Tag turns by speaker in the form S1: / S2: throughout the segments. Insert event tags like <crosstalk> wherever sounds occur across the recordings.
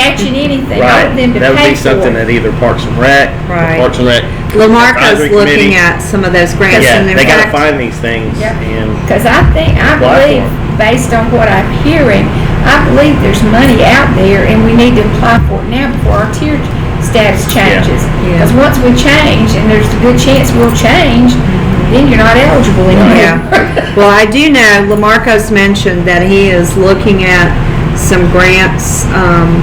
S1: touching anything. I
S2: Right,
S1: want them to
S2: that would
S1: pay
S2: be something
S1: for
S2: that
S1: it.
S2: either Parks and Rec, or
S3: Right.
S2: Parks and Rec.
S3: Lamarcos
S2: advisory committee.
S3: looking at some of those grants
S2: Yeah,
S3: and in
S2: they gotta
S3: fact,
S2: find these things
S1: Yep.
S2: and,
S1: Because I think, I
S2: Apply for
S1: believe, based on what I'm hearing, I believe there's money out there and we need to apply for it now before our tier status changes.
S3: Yeah.
S1: Because once we change, and there's a good chance we'll change, then you're not eligible anymore. <laughs>
S3: Yeah. Well, I do know Lamarcos mentioned that he is looking at some grants um,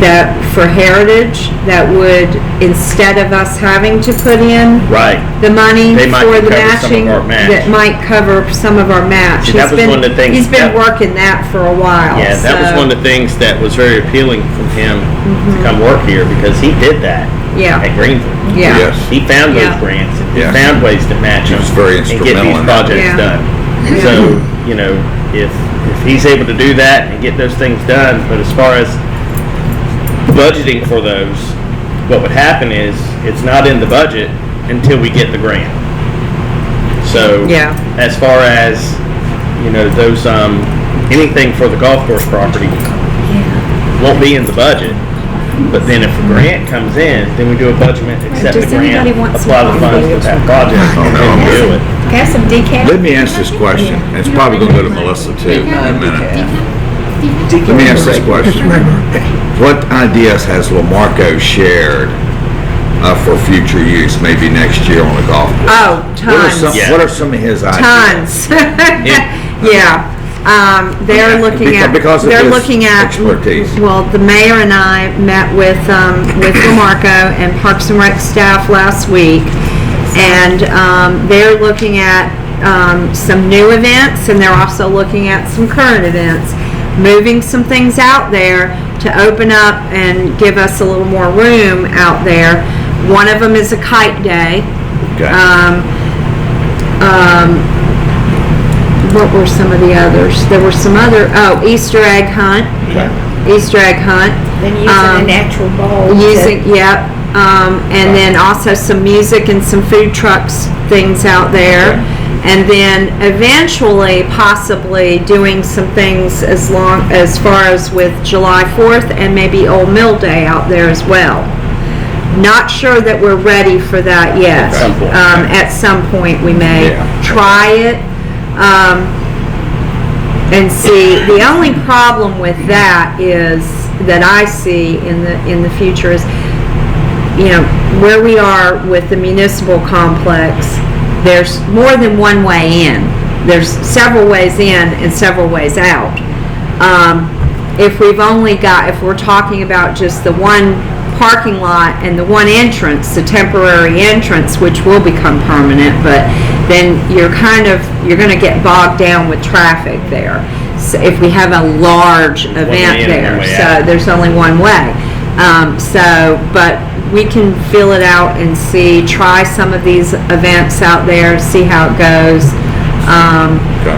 S3: that for heritage that would instead of us having to put in
S2: right.
S3: the money
S2: They might
S3: for the
S2: cover some of
S3: matching
S2: our match.
S3: that might cover some of our match.
S2: See, that
S3: He's
S2: was
S3: been-
S2: one of the things
S3: He's been
S2: that-
S3: working that for a while.
S2: Yeah, that was
S3: so-
S2: one of the things that was very appealing from him
S1: Mm-hmm.
S2: to come work here because he did that
S3: Yeah,
S2: at Greenville.
S3: yeah.
S4: Yes.
S2: He found those
S3: Yeah.
S2: grants and he
S4: Yeah.
S2: found ways to match
S4: He
S2: them
S4: was very
S2: and get
S4: instrumental
S2: these
S4: in that.
S2: projects
S3: Yeah.
S2: done.
S3: Yeah.
S2: So, you know, if, if he's able to do that and get those things done, but as far as budgeting for those, what would happen is it's not in the budget until we get the grant. So,
S3: Yeah.
S2: as far as, you know, those, um, anything for the golf course property won't be in the budget. But then if a grant comes in, then we do a budget, accept the
S3: Does
S2: grant,
S3: anybody want some
S2: apply the funds for that project, and
S4: no,
S2: then
S4: I'm
S2: we do it.
S1: Have some decaf.
S4: Let me ask this question, and it's probably gonna go to Melissa too in a minute. Let me ask this question. What ideas has Lamarco shared uh, for future use, maybe next year on the golf course?
S3: Oh,
S4: What are
S3: tons.
S4: some, what are some of his
S3: Tons.
S4: ideas? <laughs>
S3: Yeah. Um, they're looking
S4: Beca-
S3: at,
S4: because of
S3: they're
S4: his
S3: looking at.
S4: expertise.
S3: Well, the mayor and I met with, um, with Lamarco and Parks and Rec staff last week. And, um, they're looking at, um, some new events and they're also looking at some current events. Moving some things out there to open up and give us a little more room out there. One of them is a kite day.
S4: Okay.
S3: Um, um, what were some of the others? There were some other, oh, Easter egg hunt,
S4: Okay.
S3: Easter egg hunt.
S1: Then using a
S3: Um,
S1: natural ball. to-
S3: Using, yep, um, and then also some music and some food trucks, things out there. And then eventually, possibly doing some things as long, as far as with July fourth and maybe Old Mill Day out there as well. Not sure that we're ready for that yet.
S2: At some point.
S3: Um, at some point, we may
S4: Yeah.
S3: try it. Um, and see, the only problem with that is, that I see in the, in the future is, you know, where we are with the municipal complex, there's more than one way in. There's several ways in and several ways out. Um, if we've only got, if we're talking about just the one parking lot and the one entrance, the temporary entrance, which will become permanent, but then you're kind of, you're gonna get bogged down with traffic there. So if we have a large
S2: way
S3: event
S2: in and one
S3: there,
S2: way
S3: so
S2: out.
S3: there's only one way. Um, so, but we can fill it out and see, try some of these events out there, see how it goes. Um,
S4: Okay.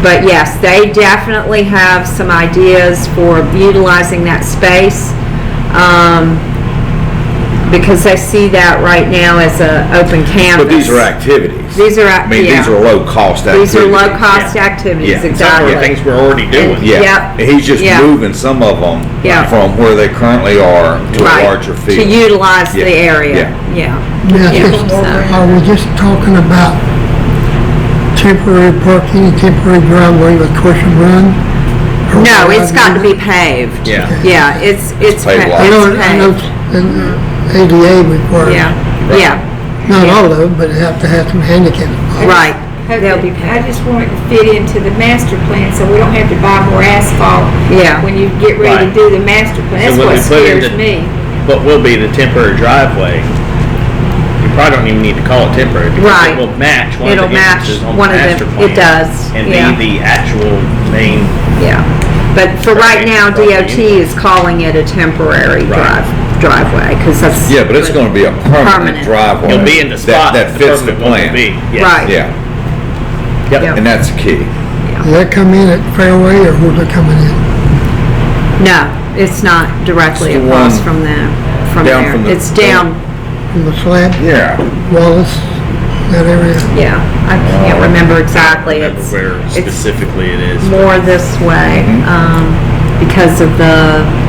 S3: but yes, they definitely have some ideas for utilizing that space. Um, because they see that right now as a open canvas.
S4: But these are activities.
S3: These are,
S4: I
S3: ac-
S4: mean, these are
S3: yeah,
S4: low-cost activities.
S3: these are low-cost
S2: Yeah.
S3: activities,
S4: Yeah.
S2: Some
S3: exactly.
S2: of the things we're already doing.
S4: Yeah,
S3: Yep.
S4: he's just
S3: Yeah.
S4: moving some of them
S3: Yeah.
S4: from where they currently are to a
S3: Right,
S4: larger field.
S3: To utilize the
S4: Yeah,
S3: area, yeah.
S5: Now,
S3: Yeah.
S5: just- Are we just talking about temporary parking, temporary driveway with cushion run? Or
S3: No,
S5: what
S3: it's got to
S5: do you-
S3: be paved.
S2: Yeah.
S3: Yeah, it's, it's, pa-
S4: paved
S3: it's
S4: lot.
S5: I know, I know,
S3: paved,
S5: and ADA requires,
S3: yeah,
S4: Right.
S3: yeah,
S5: not all of them, but they have to have some handicap.
S3: right.
S1: Hope
S3: They'll
S1: that-
S3: be
S1: I
S3: paved.
S1: just want it to fit into the master plan, so we don't have to buy more asphalt.
S3: Yeah.
S1: When you get ready to
S2: Right.
S1: do the master plan,
S2: So
S1: that's
S2: when
S1: what
S2: we put in
S1: scares
S2: the-
S1: me.
S2: What will be the temporary driveway, you probably don't even need to call it temporary. because
S3: Right.
S2: It will match one of the
S3: It'll match
S2: entrances on the
S3: one of the-
S2: master plan.
S3: it does,
S2: And
S3: yeah.
S2: be the actual main,
S3: Yeah, but for right now,
S2: Probably-
S3: DOT is calling it a temporary
S2: Right.
S3: drive, driveway, because that's.
S4: Yeah, but it's gonna be a
S3: Permanent.
S4: permanent driveway.
S2: it'll be in the
S4: that-
S2: spot
S4: That
S2: that the
S4: fits the
S2: permanent one will
S4: plan.
S2: be. Yes.
S3: Right.
S4: Yeah,
S3: Yeah.
S2: Yep.
S4: and that's the key.
S5: Do they come in at Fairway or where they coming in?
S3: No, it's not directly
S4: It's the
S3: across
S4: one
S3: from the, from
S4: down from
S3: there.
S4: the-
S3: It's down,
S5: From the flat,
S4: Yeah.
S5: Wallace, that area?
S3: yeah, I can't
S4: Oh.
S3: remember exactly.
S2: Remember
S3: It's
S2: where
S3: it's
S2: specifically it is.
S4: Mm-hmm.
S3: more this way, um, because of the,